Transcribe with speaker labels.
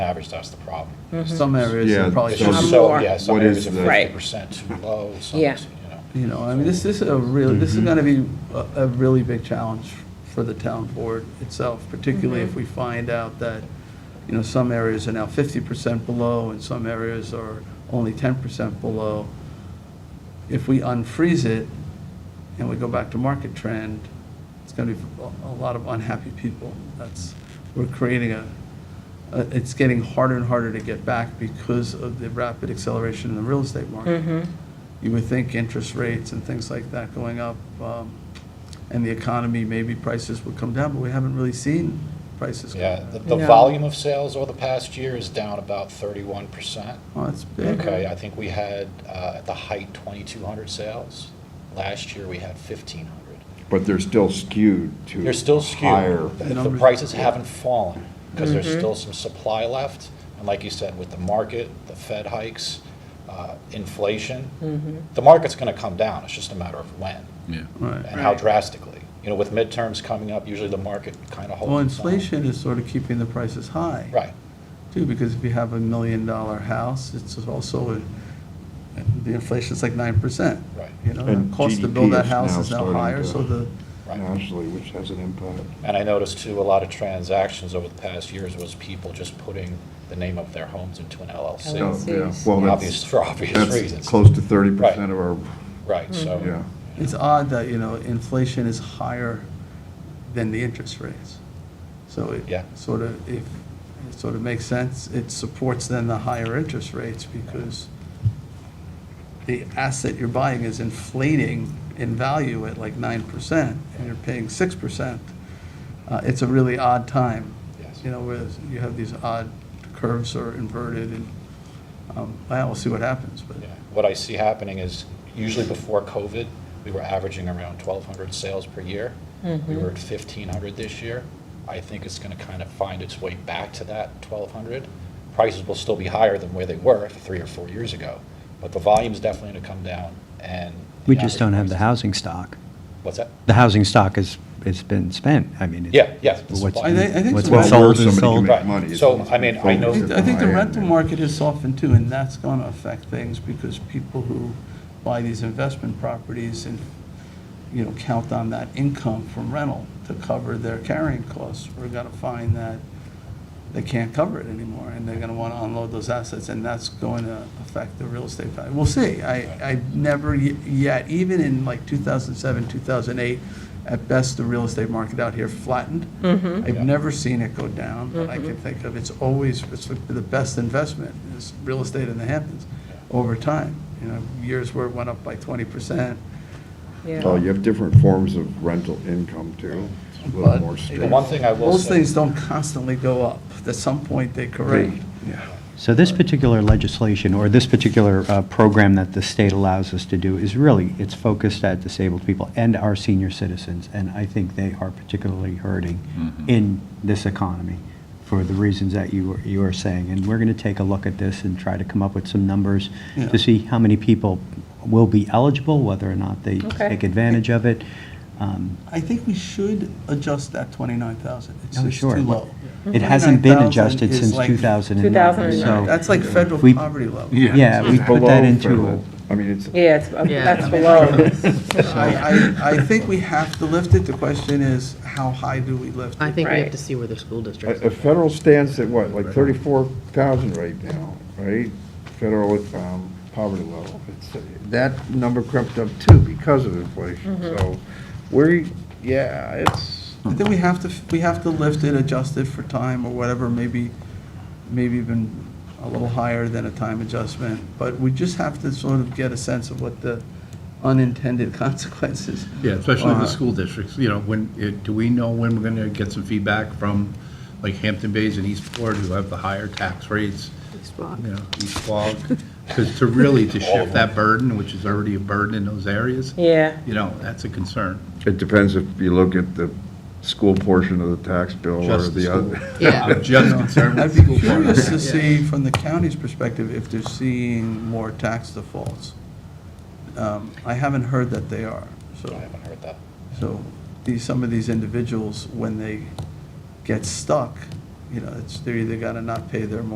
Speaker 1: average, that's the problem.
Speaker 2: Some areas
Speaker 3: Yeah,
Speaker 2: are probably,
Speaker 1: It's
Speaker 3: so-
Speaker 1: just
Speaker 2: too-
Speaker 1: so,
Speaker 4: more.
Speaker 1: yeah, some
Speaker 3: Mm. What
Speaker 1: areas
Speaker 3: is
Speaker 1: are
Speaker 3: the-
Speaker 1: fifty
Speaker 4: Right.
Speaker 1: percent too low, some,
Speaker 4: Yeah.
Speaker 1: is, you know.
Speaker 2: you know, I mean, this, this is a real, this
Speaker 3: Mm-hmm.
Speaker 2: is gonna be a, a really big challenge for the town board itself, particularly if we find out that, you know, some areas are now fifty percent below and some areas are only ten percent below. If we unfreeze it and we go back to market trend, it's gonna be a, a lot of unhappy people. That's, we're creating a, uh, it's getting harder and harder to get back because of the rapid acceleration in the real estate market. You would think interest rates and things like that going up, um, and the economy, maybe prices would come down, but we haven't really seen prices come
Speaker 1: Yeah,
Speaker 2: down.
Speaker 1: the, the
Speaker 4: No.
Speaker 1: volume of sales over the past year is down about thirty-one percent.
Speaker 4: Mm-hmm.
Speaker 2: Oh, that's big.
Speaker 1: Okay, I think we had, uh, at the height, twenty-two hundred sales. Last year, we had fifteen hundred.
Speaker 3: But they're still skewed to.
Speaker 1: They're still
Speaker 3: Higher.
Speaker 1: skewed. The- The
Speaker 2: Numbers.
Speaker 1: prices haven't fallen because
Speaker 4: Mm-hmm.
Speaker 1: there's still some supply left. And like you said, with the market, the Fed hikes, uh,
Speaker 4: Mm-hmm.
Speaker 1: inflation, the market's going to come down. It's just a matter of when
Speaker 5: Yeah.
Speaker 2: Right.
Speaker 1: and how
Speaker 4: Right.
Speaker 1: drastically. You know, with midterms coming up, usually the market kind of holds.
Speaker 2: Well,
Speaker 1: its own.
Speaker 2: inflation is sort of keeping the prices high.
Speaker 1: Right.
Speaker 2: too, because if you have a million-dollar house, it's also, a- the inflation's like nine percent.
Speaker 1: Right.
Speaker 2: You know,
Speaker 3: And
Speaker 2: the cost to
Speaker 3: GDP
Speaker 2: build that
Speaker 3: is
Speaker 2: house
Speaker 3: now
Speaker 2: is now
Speaker 3: starting
Speaker 2: higher,
Speaker 3: to-
Speaker 2: so the,
Speaker 1: Right.
Speaker 3: Nationally, which has an impact.
Speaker 1: And I noticed too, a lot of transactions over the past years was people just putting the name of their homes into an
Speaker 3: Oh,
Speaker 1: LLC.
Speaker 4: LLC.
Speaker 3: yeah.
Speaker 4: Seems-
Speaker 3: Well,
Speaker 1: Obvious,
Speaker 3: that's,
Speaker 1: for obvious
Speaker 3: that's
Speaker 1: reasons.
Speaker 3: close to thirty percent of our,
Speaker 1: Right, so.
Speaker 3: yeah.
Speaker 2: it's odd that, you know, inflation is higher than the interest rates. So
Speaker 1: Yeah.
Speaker 2: it sort of, if, it sort of makes sense, it supports then the higher interest rates because the asset you're buying is inflating in value at like nine percent, and you're paying six percent. Uh, it's a really odd time.
Speaker 1: Yes.
Speaker 2: You know, where you have these odd curves are inverted, and, um, well, we'll see what happens, but.
Speaker 1: Yeah. What I see happening is usually before COVID, we were averaging around 1,200 sales per year. We were at 1,500 this year. I think it's going to kind of find its way back to that 1,200. Prices will still be higher than where they were three or four years ago, but the volume's definitely going to come down and. the
Speaker 6: We just
Speaker 1: average
Speaker 6: don't have the
Speaker 1: prices-
Speaker 6: housing stock.
Speaker 1: What's that?
Speaker 6: The housing stock is, it's been spent, I mean. it's-
Speaker 1: Yeah, yeah, the
Speaker 6: What's
Speaker 1: supply. I
Speaker 2: think- I think
Speaker 6: what's
Speaker 2: so. Well,
Speaker 6: been
Speaker 3: where
Speaker 6: sold
Speaker 3: somebody
Speaker 6: is
Speaker 3: can
Speaker 6: sold.
Speaker 3: make
Speaker 1: Right.
Speaker 3: money is-
Speaker 1: So, I mean, I know-
Speaker 2: I
Speaker 3: focused
Speaker 2: I think the
Speaker 3: high end.
Speaker 2: rental market has softened too, and that's going to affect things because people who buy these investment properties and, you know, count on that income from rental to cover their carrying costs are going to find that they can't cover it anymore, and they're going to want to unload those assets, and that's going to affect the real estate value. We'll see. I, I never y- yet, even in like 2007, 2008, at best, the real estate market out here flattened. I've never seen it go down, but I
Speaker 1: Mm-hmm.
Speaker 2: can think of, it's always, it's the best investment, is real estate in the Hamptons, over time. You know, years where it went up by 20%,
Speaker 3: Well,
Speaker 4: Yeah.
Speaker 3: you have different forms of rental income too. It's a little
Speaker 2: But-
Speaker 3: more
Speaker 1: The
Speaker 3: stable.
Speaker 1: one thing I will
Speaker 2: Those
Speaker 1: say,
Speaker 2: things don't constantly go up. At some point, they correct.
Speaker 6: So this particular legislation, or this particular uh, program that the state allows us to do, is really, it's focused at disabled people and our senior citizens, and I think they are particularly hurting in this economy for the reasons that you, were- you are saying. And we're going to take a look at this and try to come up with some numbers
Speaker 2: Yeah.
Speaker 6: to see how many people will be eligible, whether or not they
Speaker 4: Okay.
Speaker 6: take advantage of it. Um,
Speaker 2: I think we should adjust that 29,000. It's
Speaker 6: Oh,
Speaker 2: it's too
Speaker 6: sure.
Speaker 2: low.
Speaker 6: It hasn't been
Speaker 2: 29,000
Speaker 6: adjusted
Speaker 2: is
Speaker 6: since
Speaker 2: like-
Speaker 6: 2009,
Speaker 4: 2009.
Speaker 6: so,
Speaker 2: That's like federal
Speaker 6: We-
Speaker 2: poverty level.
Speaker 6: yeah, we
Speaker 3: It's
Speaker 6: put that
Speaker 3: below
Speaker 6: into,
Speaker 3: federal. I mean, it's,
Speaker 4: Yeah, it's, that's below.
Speaker 2: I, I, I think we have to lift it. The question is, how high do we lift it?
Speaker 7: I think we have
Speaker 4: Right.
Speaker 7: to see where the school
Speaker 3: a
Speaker 7: district
Speaker 3: a
Speaker 7: is.
Speaker 3: federal stands at what, like thirty-four thousand right now, right? Federal um, poverty level. It's- That number crept up too because of inflation. So we're, yeah, it's,
Speaker 2: I think we have to, we have to lift it, adjust it for time or whatever, maybe, maybe even a little higher than a time adjustment. But we just have to sort of get a sense of what the unintended consequences.
Speaker 5: Yeah, especially
Speaker 2: are.
Speaker 5: the school districts, you know, when, it- do we know when we're going to get some feedback from, like Hampton Bays and Eastport, who have the higher tax rates? You know, East Quogue, because to really, to shift that burden, which is already a burden in those areas,
Speaker 4: Yeah,
Speaker 5: you know, that's a concern.
Speaker 3: it depends if you look at the school portion of the tax bill or
Speaker 5: Just the
Speaker 3: the
Speaker 5: school.
Speaker 3: other.
Speaker 7: Yeah.
Speaker 5: I'm just concerned
Speaker 2: I'd
Speaker 5: with
Speaker 2: be
Speaker 5: the school. part.
Speaker 2: curious to see, from the county's perspective, if they're seeing more tax defaults. Um, I haven't heard that they are,
Speaker 1: I
Speaker 2: so,
Speaker 1: haven't heard that.
Speaker 2: so these, some of these individuals, when they get stuck, you know, it's, they're either gonna not pay their